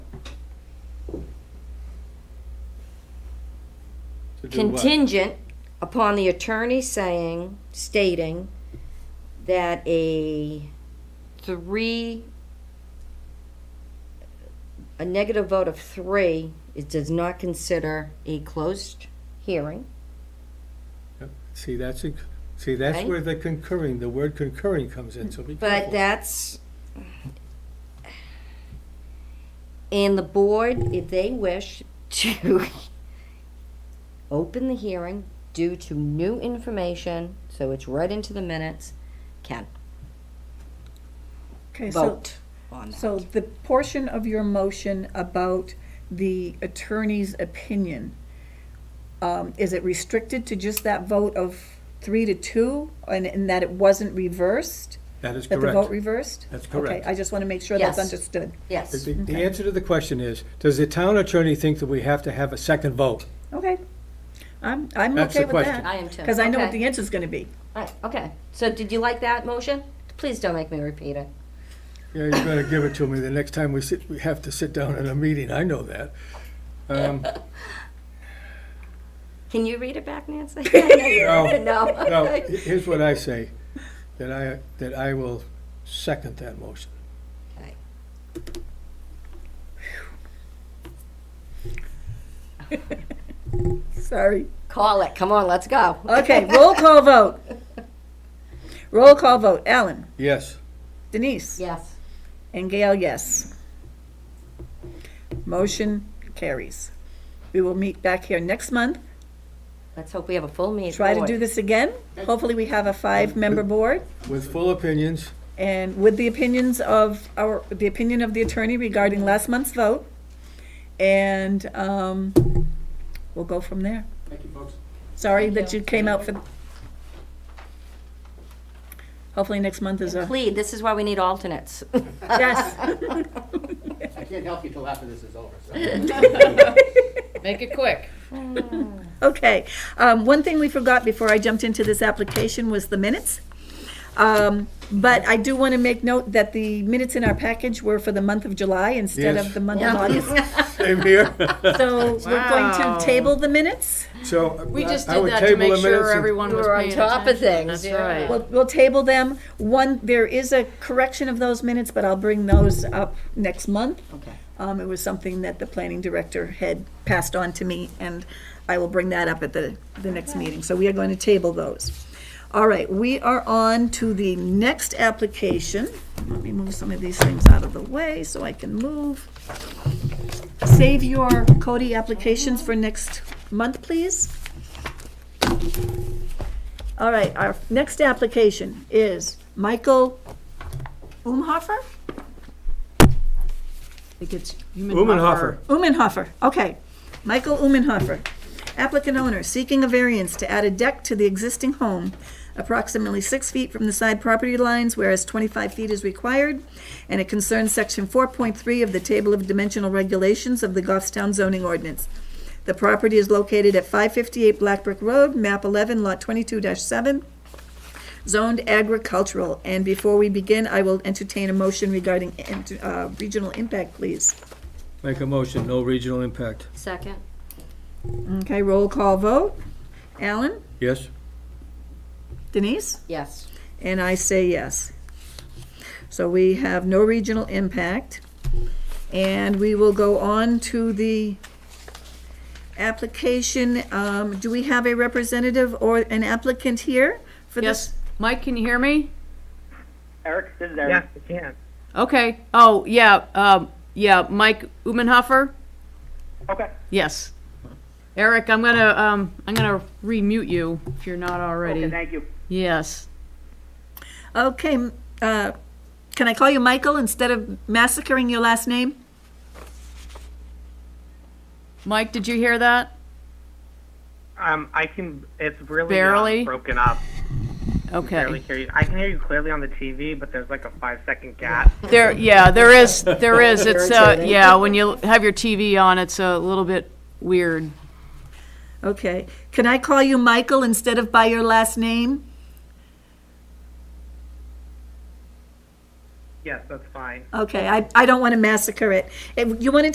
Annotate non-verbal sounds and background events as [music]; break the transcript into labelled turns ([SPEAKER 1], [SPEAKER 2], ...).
[SPEAKER 1] To do what?
[SPEAKER 2] contingent upon the attorney saying, stating that a three, a negative vote of three, it does not consider a closed hearing.
[SPEAKER 1] See, that's, a- see, that's
[SPEAKER 2] Right?
[SPEAKER 1] where the concurring, the word concurring comes in, so be careful.
[SPEAKER 2] But that's, and the board, if they wish to [laughs] open the hearing due to new information, so it's right into the minutes, can
[SPEAKER 3] Okay, so,
[SPEAKER 2] vote on that.
[SPEAKER 3] so the portion of your motion about the attorney's opinion, um, is it restricted to just that vote of three to two, and, and that it wasn't reversed?
[SPEAKER 1] That is
[SPEAKER 3] That the vote
[SPEAKER 1] correct.
[SPEAKER 3] reversed?
[SPEAKER 1] That's
[SPEAKER 3] Okay,
[SPEAKER 1] correct.
[SPEAKER 3] I just want to make sure that's
[SPEAKER 2] Yes.
[SPEAKER 3] understood.
[SPEAKER 1] The-
[SPEAKER 2] Yes,
[SPEAKER 1] The the answer to the question is, does the town attorney think that we have to have a second vote?
[SPEAKER 3] Okay, I'm, I'm
[SPEAKER 1] That's
[SPEAKER 3] okay
[SPEAKER 1] the
[SPEAKER 3] with
[SPEAKER 1] question.
[SPEAKER 3] that.
[SPEAKER 2] I am too.
[SPEAKER 3] Because I know what
[SPEAKER 2] Okay.
[SPEAKER 3] the answer's going to be.
[SPEAKER 2] Alright, okay. So did you like that motion? Please don't make me repeat it.
[SPEAKER 1] Yeah, you better give it to me the next time we sit, we have to sit down in a meeting, I know that. Um,
[SPEAKER 2] Can you read it back, [laughs] Nancy? I know you-
[SPEAKER 1] No.
[SPEAKER 4] [laughs]
[SPEAKER 1] No,
[SPEAKER 2] No.
[SPEAKER 1] he- here's what I say, that I, that I will second that motion.
[SPEAKER 3] Sorry.
[SPEAKER 2] Call it. Come on, let's go.
[SPEAKER 3] Okay, roll
[SPEAKER 2] [laughs]
[SPEAKER 3] call vote. Roll call vote. Alan?
[SPEAKER 1] Yes,
[SPEAKER 3] Denise?
[SPEAKER 2] Yes.
[SPEAKER 3] And Gail, yes. Motion carries. We will meet back here next month.
[SPEAKER 2] Let's hope we have a full meeting.
[SPEAKER 3] Try to do this again. Hopefully, we have a five-member board.
[SPEAKER 1] with full opinions,
[SPEAKER 3] And with the opinions of our, the opinion of the attorney regarding last month's vote. And um, we'll go from there.
[SPEAKER 5] Thank you, folks.
[SPEAKER 3] Sorry that you came out for. Hopefully, next month is a,
[SPEAKER 2] Please, this is why we need alternates.
[SPEAKER 3] yes.
[SPEAKER 5] I can't help you till after this is over, so.
[SPEAKER 4] Make it quick.
[SPEAKER 3] Okay, um, one thing we forgot before I jumped into this application was the minutes. Um, but I do want to make note that the minutes in our package were for the month of July instead
[SPEAKER 1] Yes.
[SPEAKER 3] of the month of August.
[SPEAKER 1] same
[SPEAKER 4] [laughs]
[SPEAKER 1] here.
[SPEAKER 3] So we're going
[SPEAKER 4] Wow.
[SPEAKER 3] to table the minutes.
[SPEAKER 1] So.
[SPEAKER 4] We just
[SPEAKER 1] I
[SPEAKER 4] did
[SPEAKER 1] would
[SPEAKER 4] that to
[SPEAKER 1] table
[SPEAKER 4] make
[SPEAKER 1] the minutes
[SPEAKER 4] sure
[SPEAKER 1] and-
[SPEAKER 4] everyone was
[SPEAKER 2] We're on
[SPEAKER 4] paying
[SPEAKER 2] top of
[SPEAKER 4] attention.
[SPEAKER 2] things.
[SPEAKER 4] That's right.
[SPEAKER 3] We'll, we'll table them. One, there is a correction of those minutes, but I'll bring those up next month.
[SPEAKER 2] Okay.
[SPEAKER 3] Um, it was something that the planning director had passed on to me, and I will bring that up at the, the next meeting. So we are going to table those. All right, we are on to the next application. Let me move some of these things out of the way so I can move. Save your Cody applications for next month, please. All right, our next application is Michael Umhofer?
[SPEAKER 4] I think it's
[SPEAKER 1] Umenhofer.
[SPEAKER 3] Umenhofer, okay. Michael Umenhofer. Applicant owner seeking a variance to add a deck to the existing home approximately six feet from the side property lines, whereas 25 feet is required, and it concerns Section 4.3 of the Table of Dimensional Regulations of the Goffstown zoning ordinance. The property is located at 558 Blackbrook Road, MAP 11, Lot 22-7, zoned agricultural. And before we begin, I will entertain a motion regarding uh, regional impact, please.
[SPEAKER 1] Make a motion, no regional impact.
[SPEAKER 2] Second?
[SPEAKER 3] Okay, roll call vote. Alan?
[SPEAKER 1] Yes?
[SPEAKER 3] Denise?
[SPEAKER 2] Yes.
[SPEAKER 3] And I say yes. So we have no regional impact. And we will go on to the application. Um, Do we have a representative or an applicant here for this?
[SPEAKER 4] Yes, Mike, can you hear me?
[SPEAKER 6] Eric, this is Eric.
[SPEAKER 7] Yes, I can.
[SPEAKER 4] Okay. Oh, yeah, um, yeah, Mike Umenhofer?
[SPEAKER 6] Okay.
[SPEAKER 4] Yes. Eric, I'm gonna, um, I'm gonna remute you if you're not
[SPEAKER 6] Okay,
[SPEAKER 4] already.
[SPEAKER 6] thank you.
[SPEAKER 4] Yes.
[SPEAKER 3] Okay, m- uh, can I call you Michael instead of massacring your last name?
[SPEAKER 4] Mike, did you hear that?
[SPEAKER 7] Um, I can. It's really uh,
[SPEAKER 4] Barely?
[SPEAKER 7] broken up.
[SPEAKER 4] Okay.
[SPEAKER 7] Barely hear you. I can hear you clearly on the TV, but there's like a five second gap.
[SPEAKER 4] There, yeah, there is, there
[SPEAKER 6] [laughs]
[SPEAKER 4] is. It's, uh, yeah, when you have your TV on, it's a little bit weird.
[SPEAKER 3] Okay, can I call you Michael instead of by your last name?
[SPEAKER 7] Yes, that's fine.
[SPEAKER 3] Okay, I, I don't want to massacre it. If You want to